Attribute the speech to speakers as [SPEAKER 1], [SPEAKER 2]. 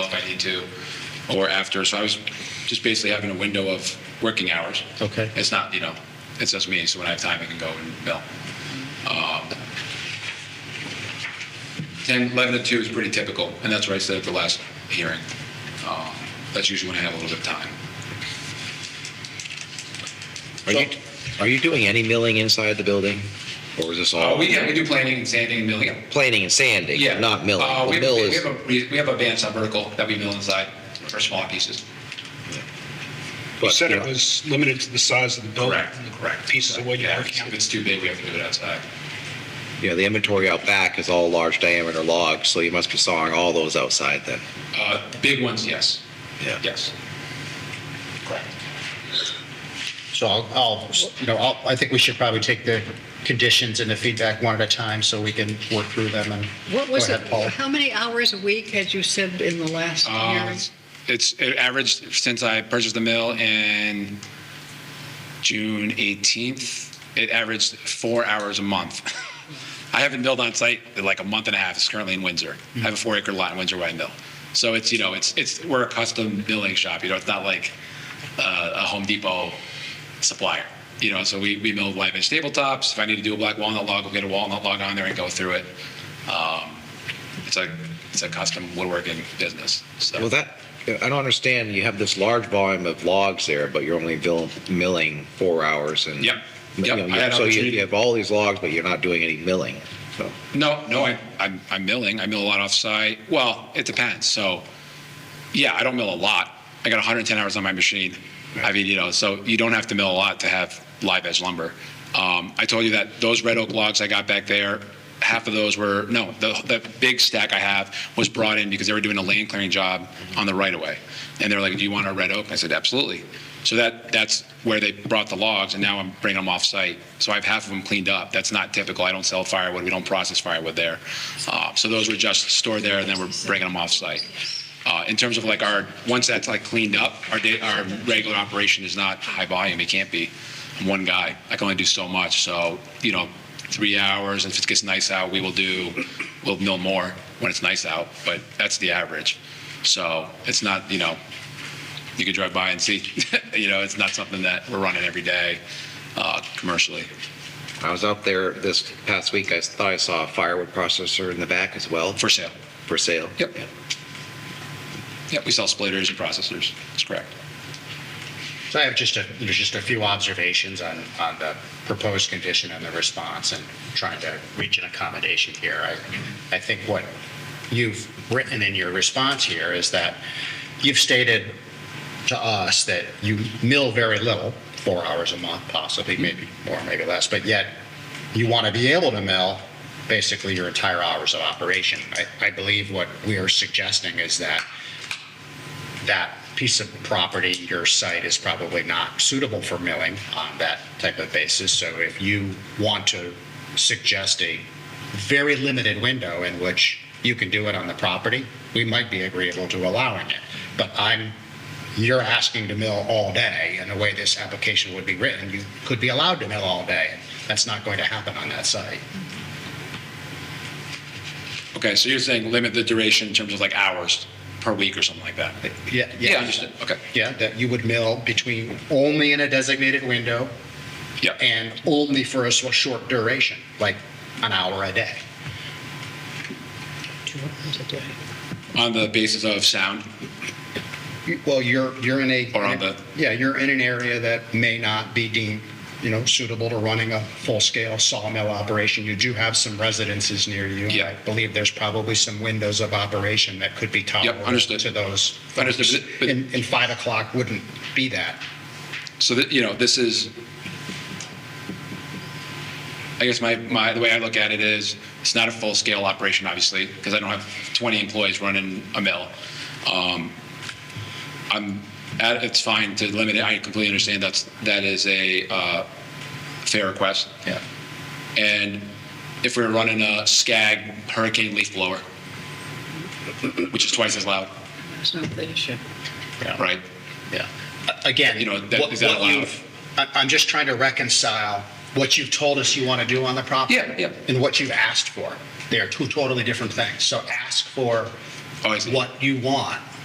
[SPEAKER 1] need to, or after. So I was just basically having a window of working hours.
[SPEAKER 2] Okay.
[SPEAKER 1] It's not, you know, it's just me, so when I have time, I can go and bill. Um, 10, 11 to 2 is pretty typical, and that's what I said at the last hearing. Uh, That's usually when I have a little bit of time.
[SPEAKER 2] Are you, are you doing any milling inside the building? Or is this
[SPEAKER 1] Uh,
[SPEAKER 2] all
[SPEAKER 1] We, yeah, we do planning and sanding and milling.
[SPEAKER 2] planing and sanding,
[SPEAKER 1] Yeah.
[SPEAKER 2] not milling?
[SPEAKER 1] Uh, we,
[SPEAKER 2] The
[SPEAKER 1] have,
[SPEAKER 2] mill
[SPEAKER 1] we,
[SPEAKER 2] is,
[SPEAKER 1] have a, we we have a band saw vertical that we mill inside for smaller pieces.
[SPEAKER 3] You
[SPEAKER 2] but,
[SPEAKER 3] said
[SPEAKER 2] you
[SPEAKER 3] it
[SPEAKER 2] know,
[SPEAKER 3] was limited to the size of the building. and the Pieces of what you're
[SPEAKER 1] Yeah,
[SPEAKER 3] working
[SPEAKER 1] If
[SPEAKER 3] on.
[SPEAKER 1] it's too big, we have to do it outside.
[SPEAKER 2] you know, the inventory out back is all large diameter logs, so you must be sawing all those outside then.
[SPEAKER 1] Uh, big ones, yes. Yes. Correct.
[SPEAKER 4] So I'll, I'll, you know, I'll, I think we should probably take the conditions and the feedback one at a time so we can work through them and.
[SPEAKER 5] What was
[SPEAKER 4] Go
[SPEAKER 5] it,
[SPEAKER 4] ahead, Paul. Um,
[SPEAKER 5] how many hours a week had you said in the last
[SPEAKER 1] Uh,
[SPEAKER 5] hearing?
[SPEAKER 1] it's it averaged since I purchased the mill in June 18th. It averaged four hours a month. I haven't milled on site in like a month and a half. It's currently in Windsor. I have a four acre lot in Windsor where I mill. So it's you know it's it's we're a custom milling shop. You know it's not like uh, a Home Depot supplier. You know so we we mill live edge tabletops. If I need to do a black walnut log, we'll get a walnut log on there and go through it. Um, it's a it's a custom woodworking business. So.
[SPEAKER 2] Well, that, I don't understand, you have this large volume of logs there, but you're only vil- milling four hours and.
[SPEAKER 1] Yep.
[SPEAKER 2] you
[SPEAKER 1] Yep,
[SPEAKER 2] know,
[SPEAKER 1] I had
[SPEAKER 2] So you-
[SPEAKER 1] opportunity.
[SPEAKER 2] you have all these logs, but you're not doing any milling, so.
[SPEAKER 1] No, no, I, I'm, I'm milling. I mill a lot offsite. Well, it depends. So, yeah, I don't mill a lot. I got 110 hours on my machine. I mean, you know, so you don't have to mill a lot to have live edge lumber. Um, I told you that those red oak logs I got back there, half of those were, no, the, the big stack I have was brought in because they were doing a land clearing job on the right of way. And they were like, do you want our red oak? I said, absolutely. So that, that's where they brought the logs and now I'm bringing them off site. So I have half of them cleaned up. That's not typical. I don't sell firewood. We don't process firewood there. Uh, so those were just stored there and then we're bringing them off site. Uh, in terms of like our, once that's like cleaned up, our day, our regular operation is not high volume. It can't be. I'm one guy. I can only do so much. So, you know, three hours. If it gets nice out, we will do, we'll mill more when it's nice out, but that's the average. So it's not, you know, you could drive by and see, you know, it's not something that we're running every day uh, commercially.
[SPEAKER 2] I was out there this past week, I thought I saw a firewood processor in the back as well.
[SPEAKER 1] For sale.
[SPEAKER 2] For sale?
[SPEAKER 1] Yep.
[SPEAKER 2] Yeah.
[SPEAKER 1] Yep, we sell splitters and processors. That's correct.
[SPEAKER 4] So I have just a, there's just a few observations on, on the proposed condition and the response and trying to reach an accommodation here. I, I think what you've written in your response here is that you've stated to us that you mill very little, four hours a month possibly, maybe more, maybe less, but yet you want to be able to mill basically your entire hours of operation. I, I believe what we are suggesting is that that piece of property, your site is probably not suitable for milling on that type of basis. So if you want to suggest a very limited window in which you can do it on the property, we might be agreeable to allowing it. But I'm, you're asking to mill all day, and the way this application would be written, you could be allowed to mill all day. That's not going to happen on that site.
[SPEAKER 1] Okay, so you're saying limit the duration in terms of like hours per week or something like that?
[SPEAKER 4] Yeah,
[SPEAKER 1] Yeah, understood. Okay.
[SPEAKER 4] Yeah, that you would mill between, only in a designated window,
[SPEAKER 1] Yep.
[SPEAKER 4] and only for a s- short duration, like an hour a day.
[SPEAKER 5] Two hours a day.
[SPEAKER 1] On the basis of sound?
[SPEAKER 4] You- Well, you're, you're in a.
[SPEAKER 1] Or on the-
[SPEAKER 4] Yeah, you're in an area that may not be deemed, you know, suitable to running a full-scale sawmill operation. You do have some residences near you. and
[SPEAKER 1] Yeah.
[SPEAKER 4] I believe there's probably some windows of operation that could be tolerable.
[SPEAKER 1] understood.
[SPEAKER 4] To those.
[SPEAKER 1] Understood,
[SPEAKER 4] folks.
[SPEAKER 1] but- but-
[SPEAKER 4] And, and five o'clock wouldn't be that.
[SPEAKER 1] so that you know this is i guess my, my the way i look at it is it's not a full scale operation obviously because i don't have 20 employees running a mill um, i'm at, it's fine to limit it i completely understand that's that is a uh, fair request yeah and if we were running a scag hurricane leaf blower which is twice as loud
[SPEAKER 5] That's not the issue.
[SPEAKER 1] right
[SPEAKER 4] Yeah. Again,
[SPEAKER 1] You
[SPEAKER 4] you
[SPEAKER 1] know,
[SPEAKER 4] know,
[SPEAKER 1] that-
[SPEAKER 4] what
[SPEAKER 1] is that
[SPEAKER 4] what
[SPEAKER 1] allowed?
[SPEAKER 4] you've, I- I'm just trying to reconcile what you've told us you want to do on the property.
[SPEAKER 1] Yeah, yeah.
[SPEAKER 4] And what you've asked for. They are two totally different things. So ask for
[SPEAKER 1] Oh, I see.
[SPEAKER 4] what you want